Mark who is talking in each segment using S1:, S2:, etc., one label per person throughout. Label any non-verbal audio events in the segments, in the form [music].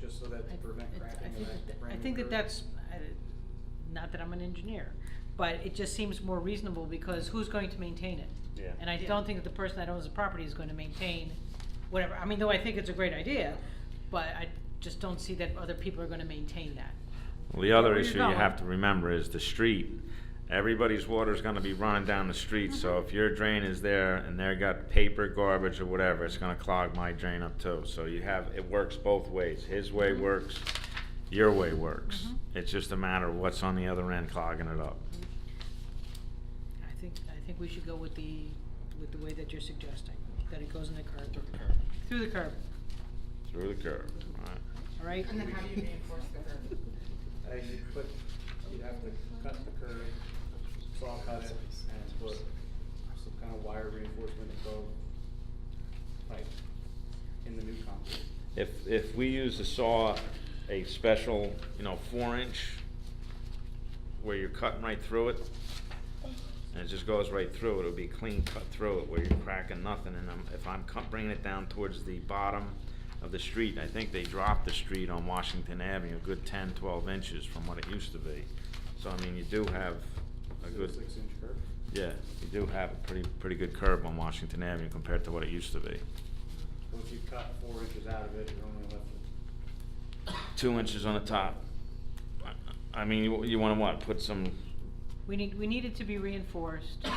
S1: just so that to prevent
S2: I-
S1: cracking
S2: I
S1: of that
S2: think that- I
S1: brand new
S2: think that
S1: curb.
S2: that's, I- not that I'm an engineer, but it just seems more reasonable because who's going to maintain it?
S3: Yeah.
S2: And I
S4: Yeah.
S2: don't think that the person that owns the property is gonna maintain whatever, I mean, though I think it's a great idea, but I just don't see that other people are gonna maintain that.
S5: Well, the other
S2: Where you
S5: issue you
S2: going?
S5: have to remember is the street. Everybody's water's gonna be running down the street, so
S2: Mm-hmm.
S5: if your drain is there and they got paper, garbage, or whatever, it's gonna clog my drain up too. So you have, it works both ways. His way
S2: Mhm.
S5: works, your way works.
S2: Mhm.
S5: It's just a matter of what's on the other end clogging it up.
S2: I think, I think we should go with the, with the way that you're suggesting, that it goes in the curb.
S1: Through the curb.
S2: Through the curb,
S5: Through the curb, right?
S2: all right?
S4: And then how do you reinforce
S2: [laughs]
S4: the curb?
S1: Uh, you put, you'd have to cut the curb, saw cut it, and put some kind of wire reinforcement that go pipe in the new concrete.
S5: If, if we use a saw, a special, you know, four inch, where you're cutting right through it, and it just goes right through, it'll be clean cut through it, where you're cracking nothing, and I'm, if I'm cut, bringing it down towards the bottom of the street, I think they dropped the street on Washington Avenue, a good 10, 12 inches from what it used to be. So, I mean, you do have a
S1: Is it
S5: good.
S1: Six inch curb.
S5: Yeah, you do have a pretty, pretty good curb on Washington Avenue compared to what it used to be.
S1: So if you cut four inches out of it, you're only left with
S5: two inches on the top. I- I mean, you, you wanna what, put some,
S2: We need, we need it to be reinforced. I,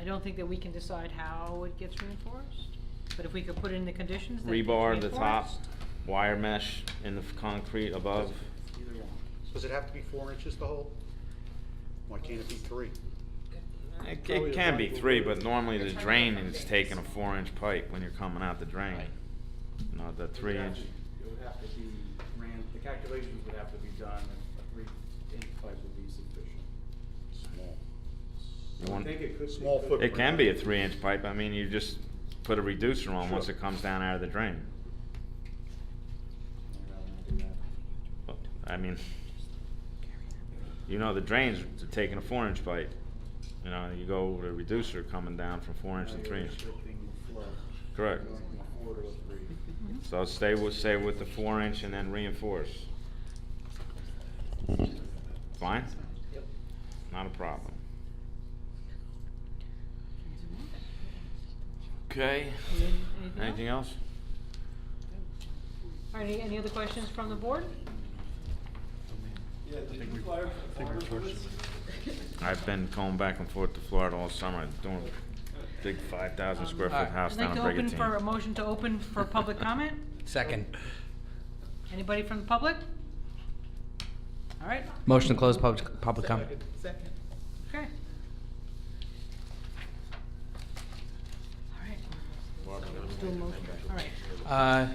S2: I don't think that we can decide how it gets reinforced, but if we could put in the conditions that it's
S5: rebar at the top,
S2: reinforced.
S5: wire mesh in the f- concrete above.
S1: either one.
S6: Does it have to be four inches to hold? Why can't it be three?
S5: It,
S1: Probably
S5: it
S1: the
S5: can be
S1: front
S5: three,
S1: will do
S5: but
S1: it.
S5: normally
S4: You're
S5: the
S4: trying to
S5: drain
S4: cut
S5: is
S4: things.
S5: taking a four inch pipe when you're coming out the drain.
S1: Right.
S5: You know, the
S1: It would
S5: three
S1: have
S5: inch,
S1: to- It would have to be ran, the calculations would have to be done, and a three inch pipe would be sufficient.
S6: Small.
S5: You
S1: I
S5: want-
S1: think it could. be-
S6: Small
S1: could-
S6: footprint.
S5: it can be a three inch pipe, I mean, you just put a reducer on once
S1: Sure.
S5: it comes down out of the drain.
S1: I'd rather not do that.
S5: But, I mean, you know, the drain's taking a four inch pipe. You know, you go with a reducer coming down from four inch
S1: Now
S5: to
S1: you're
S5: three inch.
S1: restricting the flow.
S5: Correct.
S1: Going from a four to a three.
S2: Mhm.
S5: So stay with, stay with the four inch and then reinforce. Fine?
S1: Yep.
S5: Not a problem. Okay.
S2: Any- anything
S5: Anything else?
S2: All right, any, any other questions from the board?
S7: Yeah, did you fire fire bullets?
S5: I've been going back and forth to Florida all summer, doing a big five thousand square foot house
S2: Um, I'd like
S5: down
S2: to
S5: in
S2: open
S5: Brigantine.
S2: for, a motion to open for public comment.
S8: Second.
S2: Anybody from the public? All right,
S8: Motion to close public, public comment.
S4: Second.
S2: okay. All right. Let's do a motion. All right.
S8: Uh,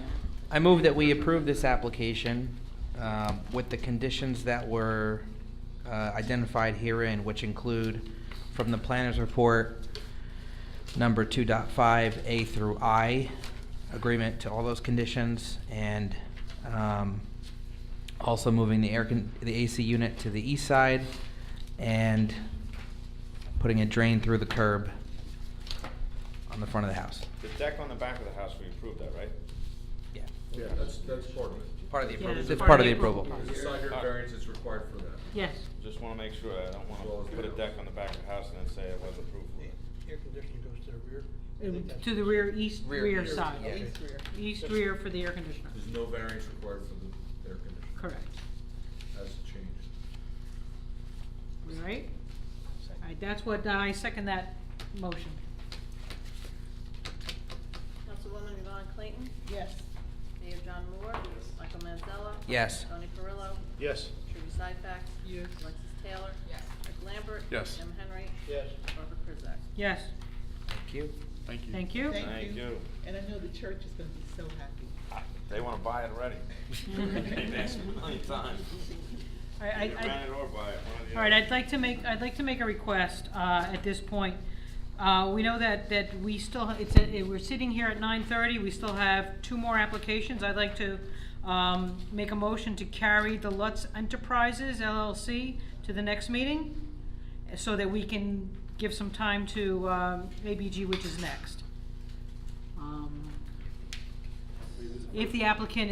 S8: I move that we approve this application um, with the conditions that were uh, identified herein, which include from the planner's report, number 2.5 A through I, agreement to all those conditions, and um, also moving the air, con- the AC unit to the east side, and putting a drain through the curb on the front of the house.
S5: The deck on the back of the house, we approved that, right?
S8: Yeah.
S7: Yeah, that's, that's part of it.
S8: Part of the
S2: Yeah,
S8: approval.
S2: that's
S8: It's
S2: part
S8: part
S2: of
S8: of
S2: the
S8: the
S2: approval.
S8: approval.
S7: The side yard variance is required for that.
S2: Yes,
S5: Just wanna make sure, I don't wanna put a deck on the back of the house and then say it was approved for it.
S9: Air conditioning goes to the rear.
S2: to the rear, east
S8: Rear,
S2: rear
S8: east,
S2: side.
S8: yeah.
S4: East rear.
S2: East rear for the air conditioner.
S7: There's no variance required for the air conditioning.
S2: Correct.
S7: That's changed.
S2: All right? All right, that's what, I second that motion.
S10: Councilwoman Yvonne Clayton,
S4: Yes.
S10: Mayor John Moore. Michael Manzella.
S8: Yes.
S10: Tony Perillo.
S6: Yes.
S10: Trudy Seifert.
S9: Yes.
S10: Alexis Taylor.
S4: Yes.
S10: Rick Lambert.
S7: Yes.
S10: Jim Henry.
S6: Yes.
S10: Barbara Prizak.
S2: Yes,
S8: Thank you.
S6: Thank you.
S2: thank you.
S5: Thank you.
S4: And I know the church is gonna be so happy.
S5: They wanna buy it already. [laughs] They've asked
S4: [laughs]
S5: me a million times.
S2: All right, I-
S5: Either
S2: I-
S5: rent it or buy it, one or the
S2: All right,
S5: other.
S2: I'd like to make, I'd like to make a request uh, at this point. Uh, We know that, that we still, it's, a- it- we're sitting here at nine thirty, we still have two more applications. I'd like to um, make a motion to carry the Lutz Enterprises LLC to the next meeting so that we can give some time to um, ABG, which is next. Um, If the applicant